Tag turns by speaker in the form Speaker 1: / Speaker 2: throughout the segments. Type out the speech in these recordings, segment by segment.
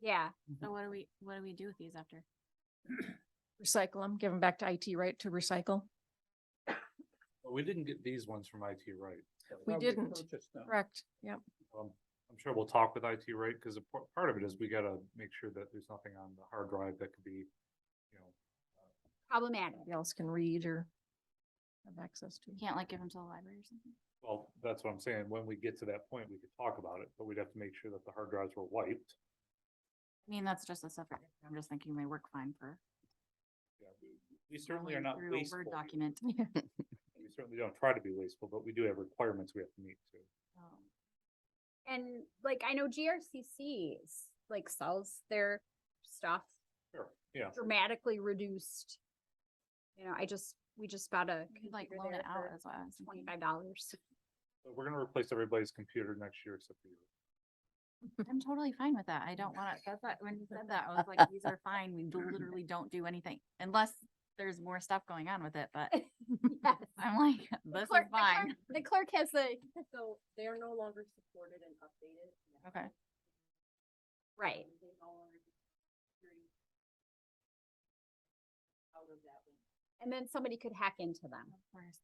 Speaker 1: Yeah,
Speaker 2: So what do we, what do we do with these after?
Speaker 3: Recycle them, give them back to IT, right, to recycle?
Speaker 4: Well, We didn't get these ones from IT Right.
Speaker 3: We
Speaker 5: Probably
Speaker 3: didn't.
Speaker 5: purchased them.
Speaker 3: Correct, yep.
Speaker 4: Um, I'm sure we'll talk with IT Right, because part of it is we gotta make sure that there's nothing on the hard drive that could be, you know,
Speaker 1: problematic.
Speaker 3: Anybody else can read or have access to.
Speaker 2: You can't like give them to the library or something?
Speaker 4: well, that's what I'm saying. When we get to that point, we could talk about it, but we'd have to make sure that the hard drives were wiped.
Speaker 2: I mean, that's just a separate, I'm just thinking they work fine for.
Speaker 4: Yeah, we- We certainly are
Speaker 2: going
Speaker 4: not
Speaker 2: through a
Speaker 4: wasteful.
Speaker 2: Word document.
Speaker 4: We certainly don't try to be wasteful, but we do have requirements we have to meet too.
Speaker 2: Um,
Speaker 1: And like, I know GRCC s- like sells their stuff
Speaker 4: Sure, yeah.
Speaker 1: dramatically reduced. You know, I just, we just bought a
Speaker 2: you could, Like
Speaker 1: computer
Speaker 2: loan
Speaker 1: there
Speaker 2: it out
Speaker 1: for
Speaker 2: as well.
Speaker 1: twenty-five dollars.
Speaker 4: But We're gonna replace everybody's computer next year except for you.
Speaker 2: I'm totally fine with that. I don't want to, that's what, when you said that, I was like, these are fine. We do- literally don't do anything unless there's more stuff going on with it, but I'm like, this is fine.
Speaker 1: The clerk has the,
Speaker 6: So they are no longer supported and updated. now.
Speaker 2: Okay.
Speaker 1: right.
Speaker 6: Um, They no longer. security Out of that one.
Speaker 1: And then somebody could hack into them.
Speaker 2: Of course.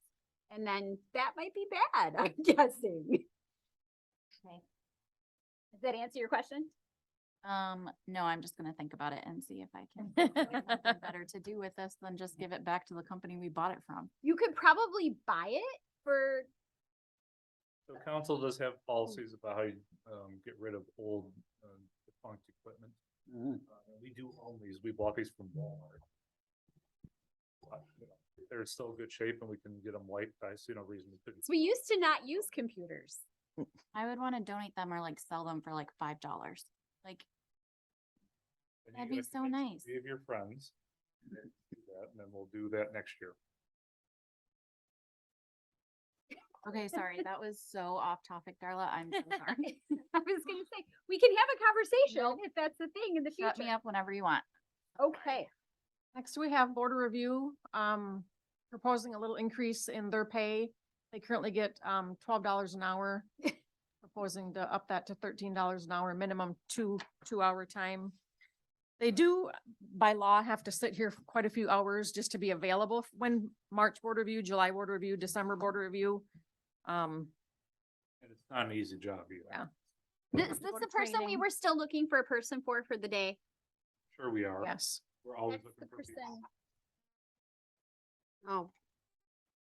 Speaker 1: And then that might be bad, I'm guessing.
Speaker 2: Okay.
Speaker 1: Does that answer your question?
Speaker 2: Um, no, I'm just gonna think about it and see if I can think of something better to do with this than just give it back to the company we bought it from.
Speaker 1: You could probably buy it for,
Speaker 4: So council does have policies about how you, um, get rid of old, uh, defunct equipment.
Speaker 5: Mhm.
Speaker 4: Uh, and We do own these, we bought these from Walmart. But, you know, They're still in good shape and we can get them wiped, I see no reason we couldn't.
Speaker 1: 'cause we used to not use computers.
Speaker 2: I would wanna donate them or like sell them for like five dollars. Like,
Speaker 4: And you
Speaker 2: that'd be
Speaker 4: gotta
Speaker 2: so
Speaker 4: convince
Speaker 2: nice.
Speaker 4: three of your friends. to do that, And then we'll do that next year.
Speaker 2: okay, sorry, that was so off topic, Darla. I'm so sorry.
Speaker 1: I was gonna say, we can have a conversation if that's the thing in the
Speaker 2: Shut me
Speaker 1: future.
Speaker 2: up whenever you want.
Speaker 1: Okay,
Speaker 3: Next, we have board of review, um, proposing a little increase in their pay. They currently get, um, twelve dollars an hour. Proposing to up that to thirteen dollars an hour, minimum two, two-hour time. They do, by law, have to sit here for quite a few hours just to be available f- when March board review, July board review, December board review. Um,
Speaker 4: And it's not an easy job either.
Speaker 3: Yeah.
Speaker 1: this, this the person we were still looking for a person for, for the day.
Speaker 4: Sure we are.
Speaker 3: yes,
Speaker 4: We're always
Speaker 1: That's the
Speaker 4: looking for people.
Speaker 1: person,
Speaker 6: Oh.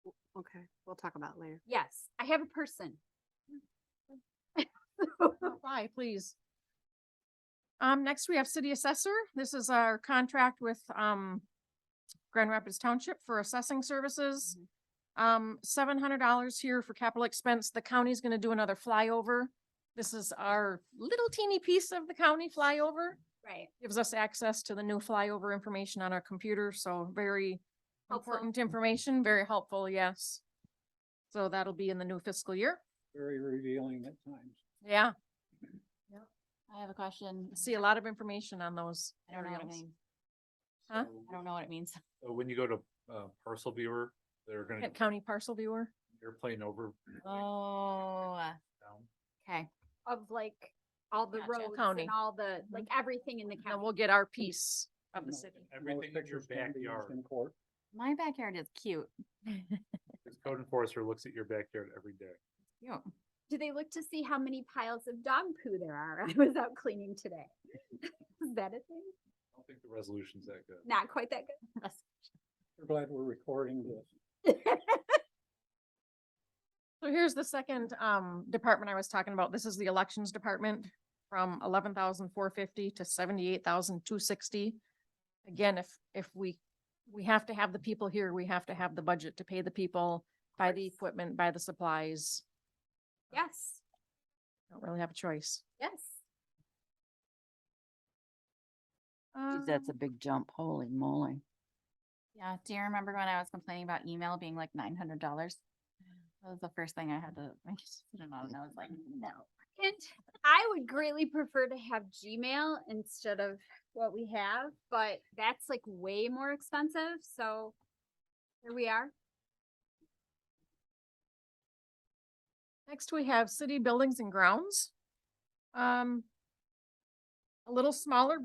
Speaker 6: w- Okay, we'll talk about it later.
Speaker 1: yes, I have a person.
Speaker 2: Hmm.
Speaker 3: apply, please. Um, next we have city assessor. This is our contract with, um, Grand Rapids Township for assessing services. Um, seven hundred dollars here for capital expense. The county's gonna do another flyover. This is our little teeny piece of the county flyover.
Speaker 1: Right,
Speaker 3: Gives us access to the new flyover information on our computer, so very
Speaker 1: Helpful.
Speaker 3: important information, very helpful, yes. So that'll be in the new fiscal year.
Speaker 5: Very revealing at times.
Speaker 3: Yeah,
Speaker 2: I have a question.
Speaker 3: see a lot of information on those
Speaker 2: I don't know what it
Speaker 3: areas.
Speaker 2: means.
Speaker 3: Huh?
Speaker 4: So-
Speaker 2: I don't know what it means.
Speaker 4: So when you go to, uh, parcel viewer, they're gonna
Speaker 3: Kent County parcel viewer.
Speaker 4: airplane over.
Speaker 2: Oh,
Speaker 4: down.
Speaker 2: okay.
Speaker 1: of like all the
Speaker 2: Gotcha.
Speaker 1: roads
Speaker 3: County.
Speaker 1: and all the, like everything in the
Speaker 3: And
Speaker 1: county.
Speaker 3: we'll get our piece of the
Speaker 5: No,
Speaker 3: city.
Speaker 5: those
Speaker 4: Everything in your
Speaker 5: pictures can be used
Speaker 4: backyard.
Speaker 5: In court.
Speaker 2: My backyard is cute.
Speaker 4: This code enforcer looks at your backyard every day.
Speaker 2: Cute.
Speaker 1: Do they look to see how many piles of dog poo there are? I was out cleaning today. Is that a thing?
Speaker 4: I don't think the resolution's that good.
Speaker 1: Not quite that good.
Speaker 5: We're glad we're recording this.
Speaker 3: So here's the second um department I was talking about. This is the elections department from eleven thousand four fifty to seventy-eight thousand two sixty. Again, if if we, we have to have the people here, we have to have the budget to pay the people, buy the
Speaker 1: course.
Speaker 3: equipment, buy the supplies.
Speaker 1: Yes,
Speaker 3: Don't really have a choice.
Speaker 1: yes.
Speaker 7: Geez, That's
Speaker 3: Um,
Speaker 7: a big jump, holy moly.
Speaker 2: Yeah, do you remember when I was complaining about email being like nine hundred dollars? That was the first thing I had to, I just didn't know, and I was like, no.
Speaker 1: And I would greatly prefer to have Gmail instead of what we have, but that's like way more expensive, so here we are.
Speaker 3: Next, we have city buildings and grounds. Um, a little smaller,